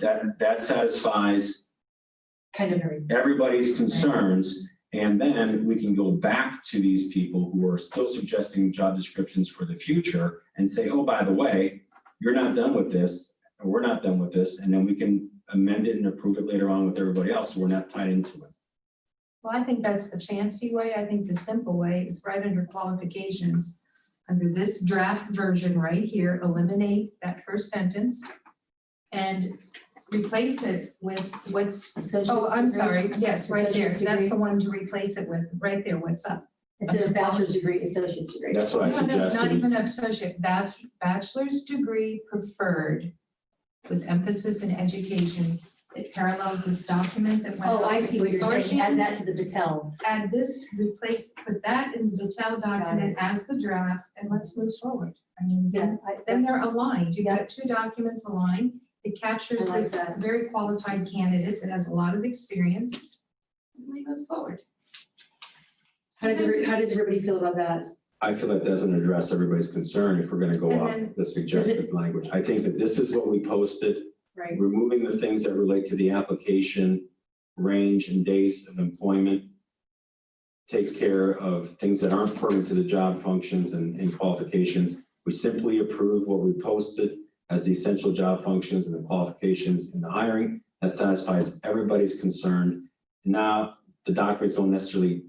That, that satisfies Kind of very. everybody's concerns. And then we can go back to these people who are still suggesting job descriptions for the future and say, oh, by the way, you're not done with this, or we're not done with this, and then we can amend it and approve it later on with everybody else, so we're not tied into it. Well, I think that's the fancy way. I think the simple way is right under qualifications. Under this draft version right here, eliminate that first sentence and replace it with what's, Associate's oh, I'm degree. sorry, yes, right there. Associate's That's degree. the one to replace it with, right there, what's up. Instead of bachelor's degree, associate's degree. That's what I No, no, Not suggested. even associate, bach- bachelor's degree preferred with emphasis in education. It parallels this document that went. Oh, out I with see what you're saying. consortium. Add that to the Patel. And this replace, put that in the TEL document as the draft, and let's move forward. I mean, Yeah. then, then they're aligned, you've got two documents aligned, it I captures like this that. very qualified candidate that has a lot of experience. And We move forward. How does, every- how does everybody feel about that? I feel that doesn't address everybody's concern if we're gonna go And off then- the suggested language. I think that this is what we posted. Right. removing the things that relate to the application, range and days of employment. Takes care of things that aren't pertinent to the job functions and, and qualifications. We simply approve what we posted as the essential job functions and the qualifications in the hiring. That satisfies everybody's concern. Now, the documents don't necessarily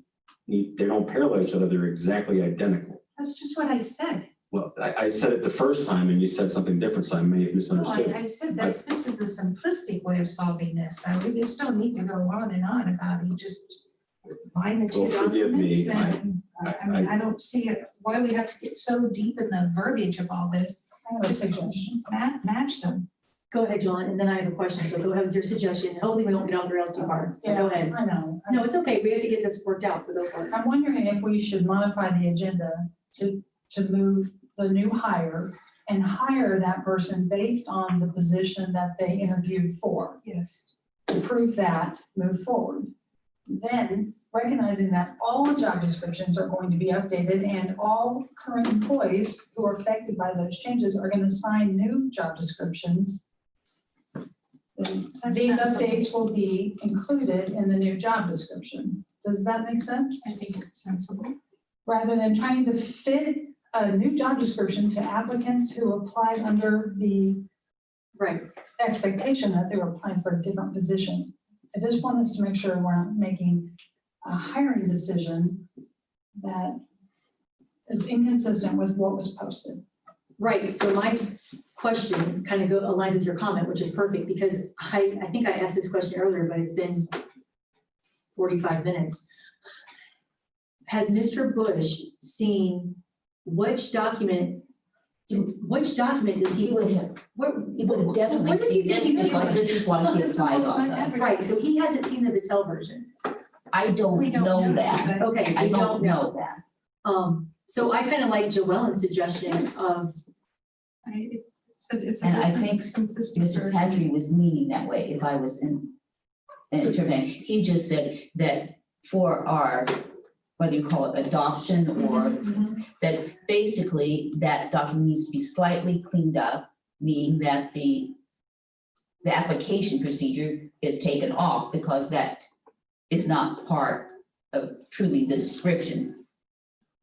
need, they don't parallel each other, they're exactly identical. That's just what I said. Well, I, I said it the first time and you said something different, so I may have Oh, No, misunderstood. I, I said that's, this is a simplistic way of solving this, so we just don't need to go on and on about it, you just line the two Well, forgive me, documents and, I- uh, I mean, I don't see it, why we have to get so deep in the verbiage of all this. Just ma- match them. Go ahead, John, and then I have a question, so go ahead with your suggestion. Hopefully, we won't get off the rails too hard. So Go ahead. I know. No, it's okay. We have to get this worked out, so go for it. I'm wondering if we should modify the agenda to, to move the new hire and hire that person based on the position that they interviewed for. Yes. To prove that, move forward. Then recognizing that all job descriptions are going to be updated and all current employees who are affected by those changes are going to sign new job descriptions. These updates will be included in the new job description. Does that make sense? I think it's sensible. rather than trying to fit a new job description to applicants who applied under the Right. expectation that they were applying for a different position. I just want us to make sure we're not making a hiring decision that is inconsistent with what was posted. Right, so my question kind of go, aligns with your comment, which is perfect, because I, I think I asked this question earlier, but it's been forty-five minutes. Has Mr. Bush seen which document, which document does he? He would have, What- he would have definitely what did he seen this, think he because was- this is why he applied on that. Right, so he hasn't seen the Patel version. I We don't don't know know that. that. Okay, I you don't know Um, so I kind of like Joellen's suggestion Yes. of, I, it- it's, a- it's. a And I different think simplistic. that. Mr. version. Padre was meaning that way if I was in, intervening. He just said that for our, whether you call it adoption or that basically that document needs to be slightly cleaned up, meaning that the the application procedure is taken off because that is not part of truly the description.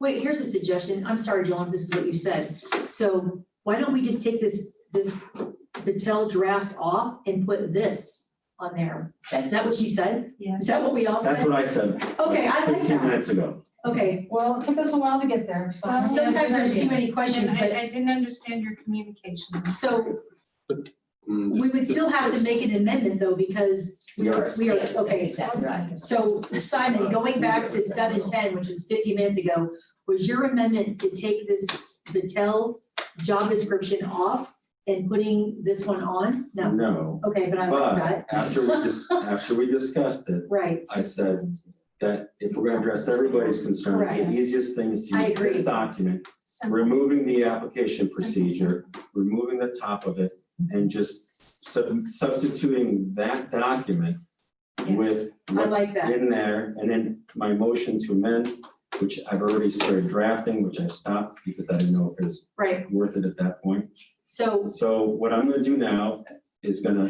wait, here's a suggestion. I'm sorry, Joellen, if this is what you said. So why don't we just take this, this Patel draft off and put this on there? Is That's that what you said? Yes. Is that what we all That's said? what I said. Okay, I like Fifteen that. minutes ago. Okay, Well, it took us a while to get there, so. sometimes there's too many questions, And I, but I didn't understand your communications. so Mm, we this- would this- still have to this- make an amendment though, because we are, Yes. we are, Yes, that's okay. Exactly right. So Simon, going back to seven ten, which was fifty minutes ago, was your amendment to take this Patel job description off and putting this one on? No, No, okay, but I like but that. after we dis after we discussed it, Right, I said that if we're gonna address everybody's concerns, Correct. the easiest thing is to I use this agree. document, Simple. removing the application Simple, procedure, removing the top of it, and just sub- substituting that document Yes. with what's like that. in there, and then my motion to amend, which I've already started drafting, which I stopped because I didn't know if it was right. worth it at that point. So So what I'm gonna do now is gonna